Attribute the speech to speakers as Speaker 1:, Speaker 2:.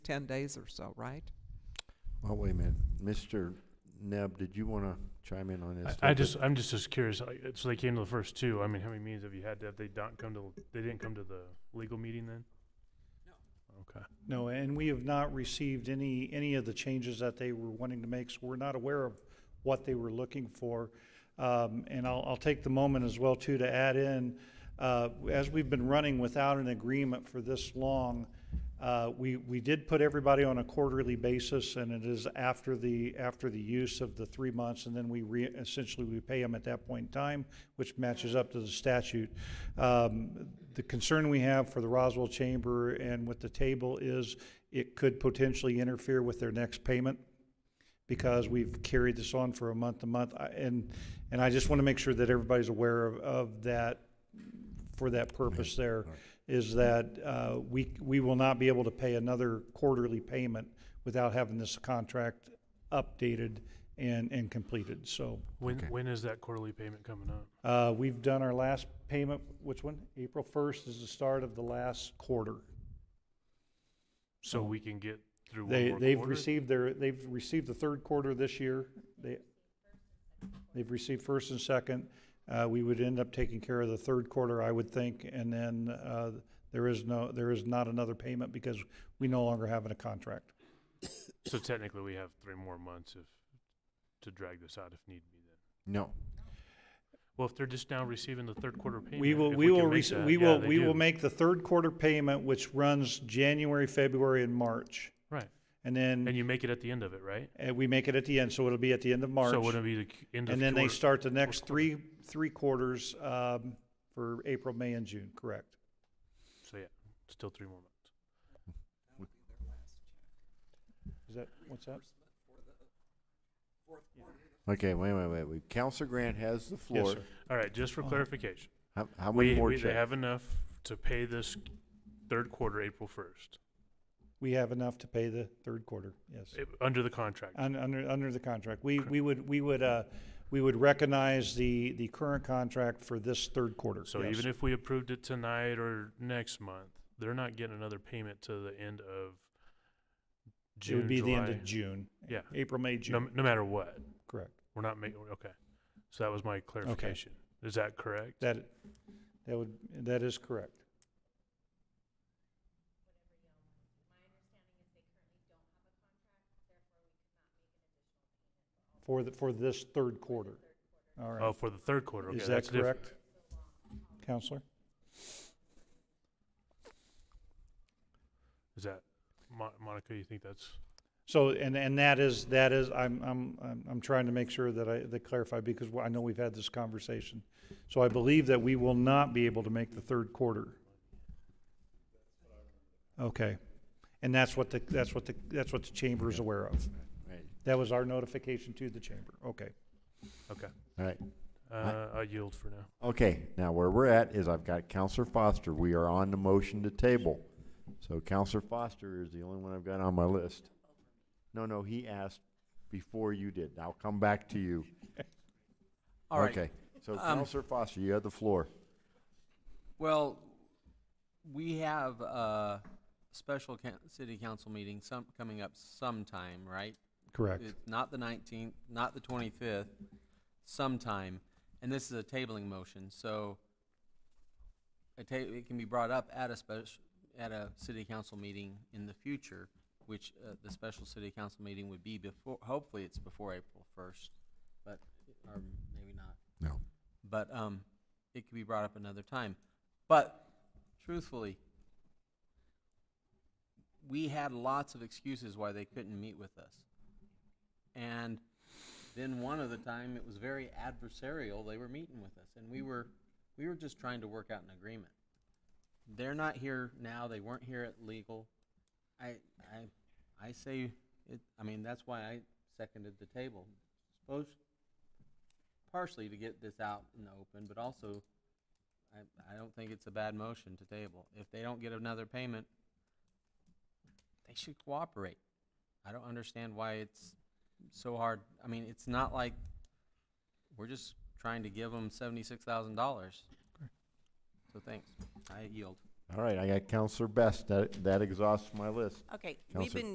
Speaker 1: 10 days or so, right?
Speaker 2: Oh, wait a minute. Mr. Neb, did you want to chime in on this?
Speaker 3: I, I
Speaker 2: too?
Speaker 3: just, I'm just as curious, like, so they came to the first two, I mean, how many meetings have you had, have they not come to, they didn't come to the legal meeting then? No. Okay.
Speaker 4: No, and we have not received any, any of the changes that they were wanting to make, so we're not aware of what they were looking for. Um, and I'll, I'll take the moment as well too to add in, uh, as we've been running without an agreement for this long, uh, we, we did put everybody on a quarterly basis and it is after the, after the use of the three months and then we re, essentially we pay them at that point in time, which matches up to the statute. Um, the concern we have for the Roswell Chamber and with the table is it could potentially interfere with their next payment because we've carried this on for a month to month. I- And, and I just want to make sure that everybody's aware of, of that, for that purpose there, is that uh, we, we will not be able to pay another quarterly payment without having this contract updated and, and completed. So
Speaker 3: When,
Speaker 2: Okay.
Speaker 3: when is that quarterly payment coming up?
Speaker 4: uh, we've done our last payment, which one? April 1st is the start of the last quarter.
Speaker 3: So we can get through one
Speaker 4: They,
Speaker 3: more
Speaker 4: they've
Speaker 3: quarter?
Speaker 4: received their, they've received the third quarter this year. They, they've received first and second. Uh, we would end up taking care of the third quarter, I would think, and then, uh, there is no, there is not another payment because we no longer have a contract.
Speaker 3: So technically, we have three more months if, to drag this out if need be then.
Speaker 2: No,
Speaker 3: Well, if they're just now receiving the third quarter payment.
Speaker 4: We will,
Speaker 3: if
Speaker 4: we
Speaker 3: can
Speaker 4: will,
Speaker 3: make
Speaker 4: rece-
Speaker 3: that-
Speaker 4: we
Speaker 3: yeah,
Speaker 4: will,
Speaker 3: they
Speaker 4: we will
Speaker 3: do.
Speaker 4: make the third quarter payment, which runs January, February, and March.
Speaker 3: Right.
Speaker 4: And
Speaker 3: And
Speaker 4: then,
Speaker 3: you make it at the end of it, right?
Speaker 4: and we make it at the end, so it'll be at the end of March.
Speaker 3: So wouldn't it be the c- end of
Speaker 4: And then they
Speaker 3: quarter?
Speaker 4: start the next
Speaker 3: quarter.
Speaker 4: three, three quarters, um, for April, May, and June, correct?
Speaker 3: So yeah, still three more months.
Speaker 4: Is that, what's that?
Speaker 2: okay, wait, wait, wait, wait. Counselor Grant has the
Speaker 4: Yes,
Speaker 2: floor.
Speaker 4: sir.
Speaker 3: All right, just for
Speaker 4: Oh.
Speaker 3: clarification.
Speaker 2: How, how
Speaker 3: We,
Speaker 2: many more
Speaker 3: we- they
Speaker 2: checks?
Speaker 3: have enough to pay this third quarter April first,
Speaker 4: We have enough to pay the third quarter, yes.
Speaker 3: eh, under the contract.
Speaker 4: Un- Under, under the contract. We,
Speaker 3: Correct.
Speaker 4: we would, we would, uh, we would recognize the, the current contract for this third quarter.
Speaker 3: So
Speaker 4: yes.
Speaker 3: even if we approved it tonight or next month, they're not getting another payment to the end of
Speaker 4: It
Speaker 3: June,
Speaker 4: would be the end of
Speaker 3: July.
Speaker 4: June.
Speaker 3: Yeah.
Speaker 4: April, May,
Speaker 3: No,
Speaker 4: June,
Speaker 3: no matter what,
Speaker 4: correct.
Speaker 3: we're not making, okay. So that was my clarification. Is that correct?
Speaker 4: That, that would, that is correct. For the, for this third quarter. All
Speaker 3: Oh,
Speaker 4: right.
Speaker 3: for the third quarter, okay.
Speaker 4: Is that
Speaker 3: that's different.
Speaker 4: correct? Counselor?
Speaker 3: Is that, Mo- Monica, you think that's?
Speaker 4: So, and, and that is, that is, I'm, I'm, I'm, I'm trying to make sure that I, that clarify, because I know we've had this conversation. So I believe that we will not be able to make the third quarter. Okay. And that's what the, that's what the, that's what the chamber is aware of.
Speaker 2: Right.
Speaker 4: That was our notification to the chamber. Okay.
Speaker 3: Okay.
Speaker 2: All right.
Speaker 3: Uh, I yield for now.
Speaker 2: Okay, now where we're at is I've got Counselor Foster. We are on the motion to table. So Counselor Foster is the only one I've got on my list. No, no, he asked before you did. I'll come back to you.
Speaker 5: All right. Um,
Speaker 2: Okay, so Counselor Foster, you have the floor.
Speaker 5: Well, we have a special coun- city council meeting some, coming up sometime, right?
Speaker 4: Correct.
Speaker 5: It's Not the 19th, not the 25th, sometime. And this is a tabling motion, so a ta- it can be brought up at a special, at a city council meeting in the future, which uh, the special city council meeting would be before, hopefully it's before April 1st, but, or maybe not
Speaker 2: No.
Speaker 5: but um, it could be brought up another time. But truthfully, we had lots of excuses why they couldn't meet with us. And then one of the time, it was very adversarial. They were meeting with us, and we were we were just trying to work out an agreement. They're not here now. They weren't here at legal. I I I say it. I mean that's why I seconded the table. Suppose partially to get this out in the open, but also, I, I don't think it's a bad motion to table. If they don't get another payment, they should cooperate. I don't understand why it's so hard. I mean, it's not like, we're just trying to give them seventy-six thousand dollars. So thanks. I yield.
Speaker 2: All right, I got Counselor Best. That, that exhausts my list.
Speaker 6: Okay,
Speaker 2: Counselor-
Speaker 6: we've been